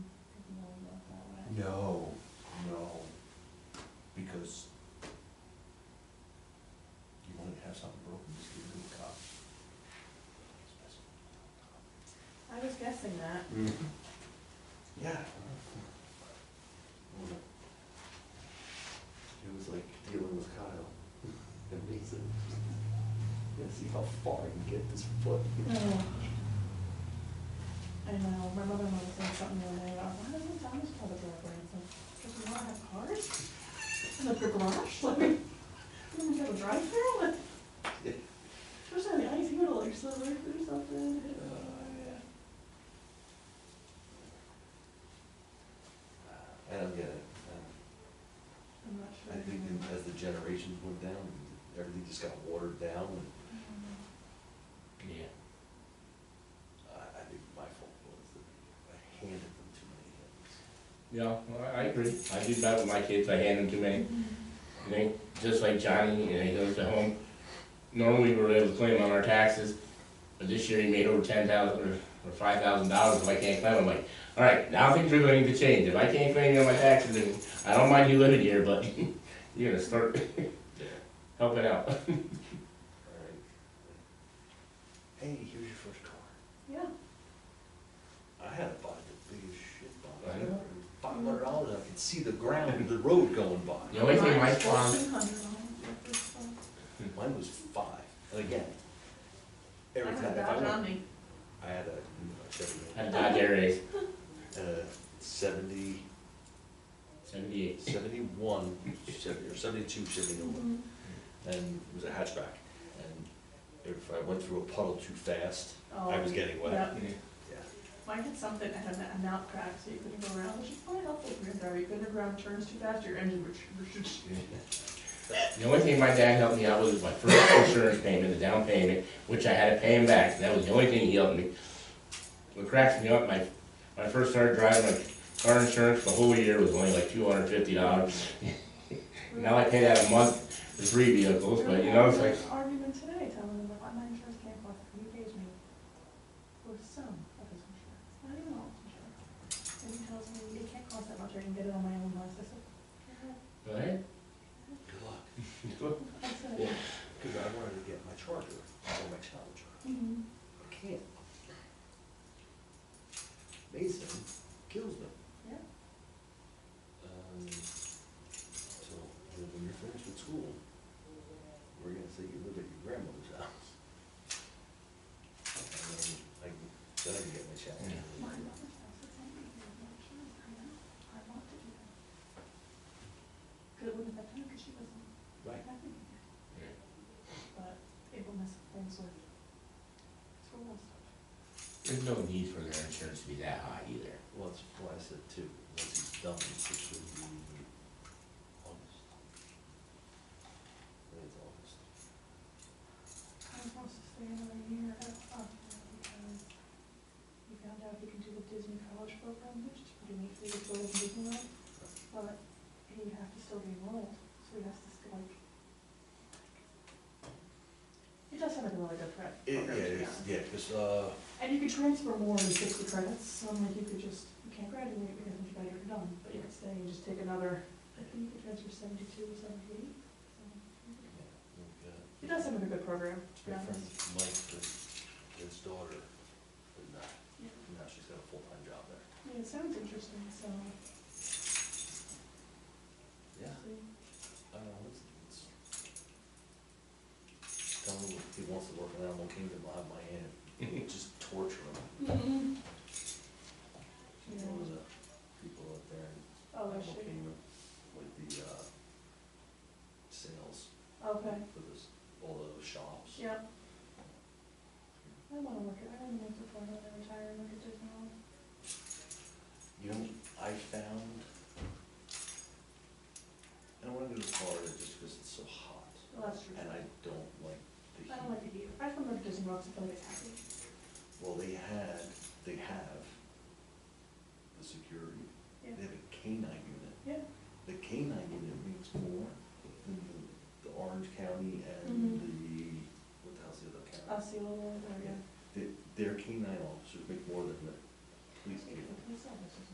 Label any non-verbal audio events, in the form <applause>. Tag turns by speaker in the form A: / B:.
A: No, no, because you want to have something broken, just give it to a cop.
B: I was guessing that.
A: Mm-hmm. Yeah. It was like dealing with Kyle, amazing. Gonna see how far I can get this foot. Hmm.
B: Oh. I know, my mother-in-law was saying something the other day about, why doesn't Thomas call the driveway? It's like, because we don't have cars in the garage, <laughs> like, we don't have a drive-through, like, especially on the ice, you would have like slid right through something.
A: Uh, yeah. I don't get it. I
B: I'm not sure.
A: don't- I think that as the generations went down, everything just got watered down and
C: Yeah.
A: I, I think my fault was that I handed them too many things.
C: Yeah, well, I I agree. I did that with my kids. I hand them to me. You know, just like Johnny, you know, he goes to home. Normally we were able to claim on our taxes, but this year he made over ten thousand or, or five thousand dollars if I can't claim. I'm like, all right, now things are going to change. If I can't claim on my taxes, then I don't mind you living here, but <laughs> you're gonna start <laughs> helping out.
A: Alright. Hey, here's your first car.
B: Yeah,
A: I had to buy the biggest shit
C: I
A: bomb.
C: know.
A: Five hundred dollars, I could see the ground, the road going by.
C: The only thing my
B: Mine's
C: farm,
B: 1400 like this one.
A: Mine was five, and again,
B: I
A: every
B: had
A: time, if I
B: that on
A: went,
B: me.
A: I had a, a Chevy,
C: I Dodge Air Race,
A: uh, seventy,
C: seventy-eight.
A: seventy-one, Chevy, or seventy-two Chevy Nova,
B: Mhm.
A: and it was a hatchback. And if I went through a puddle too fast, I
B: Oh,
A: was getting wet.
B: yeah.
A: Yeah.
B: Mine had something that had a knob crack, so you couldn't go around, which is probably helpful if you're in driver. You couldn't go around turns too fast, your engine would. sh- sh- sh-
C: The only thing my dad helped me out with was my first insurance payment, the down payment, which I had to pay him back. That was the only thing he helped me. What cracks me up, my, when I first started driving, my car insurance, the whole year was only like two hundred fifty dollars. <laughs> Now I pay that a month for three vehicles, but you know, it's like,
B: Argument today, telling them that my insurance came off, you pays me for some of his insurance, not even all his insurance. And he tells me, it can't cost that much, I can get it on my own list, I said, "Yeah."
C: right?
A: Good luck.
B: I said,
C: Yeah.
A: Cause I wanted to get my charger or my challenger.
B: "Mhm."
A: I can't. Mason kills me.
B: Yeah.
A: Um, so, then when you're finished with school, we're gonna say you live at your grandmother's house. And then I, can- then I can get my challenger.
B: My mother's house, it's empty, there's no insurance, I know, I want to do that. Cause it wouldn't have happened, cause she wasn't
A: Right.
B: happy. But it will mess up things with school and stuff.
C: There's no need for their insurance to be that high either.
A: Well, that's why I said two, once he's done, it should be August. I think it's August.
B: I was supposed to stay another year at Buffalo because we found out he can do the Disney College Program, which is pretty neat, so he could go to Disneyland. But he has to still be enrolled, so he has to stay like. He does have a really good prep.
A: It,
B: program, to be
A: yeah, it's,
B: honest.
A: yeah, cause, uh,
B: And you could transfer more than sixty credits, so I'm like, you could just, you can't graduate because once you got it done, but you could stay and just take another, I think you could transfer seventy-two, seventy-eight. so.
A: yeah,
B: He does have a good program, to be
A: My friend
B: honest.
A: Mike, his- his daughter, but now,
B: Yeah.
A: now she's got a full-time job there.
B: Yeah, it sounds interesting, so.
A: Yeah. I don't know, it's, it's. Tell him if he wants to work in Animal Kingdom, I'll have my hand, just torture him.
B: Mm-hmm. Yeah.
A: What was that? People up there in
B: Oh, I
A: Animal
B: should,
A: Kingdom with the, uh, sales
B: okay,
A: for this, all those shops.
B: yeah. I wanna work it, I wanna make the point when I retire and work at Disney World.
A: You know, I found, I don't wanna go to Florida just because it's so hot.
B: Well, that's true.
A: And I don't like the heat.
B: I don't like the heat, I just wanna work at Disney World, 'cause I feel like it's happy.
A: Well, they had, they have the security, they
B: Yeah.
A: have a canine unit.
B: Yeah.
A: The canine unit makes more than the, the Orange County and
B: Mhm.
A: the, what the hell's the other county?
B: I'll see you later, yeah.
A: The- Their canine officers make more than the police do.
B: It's- it's- it's-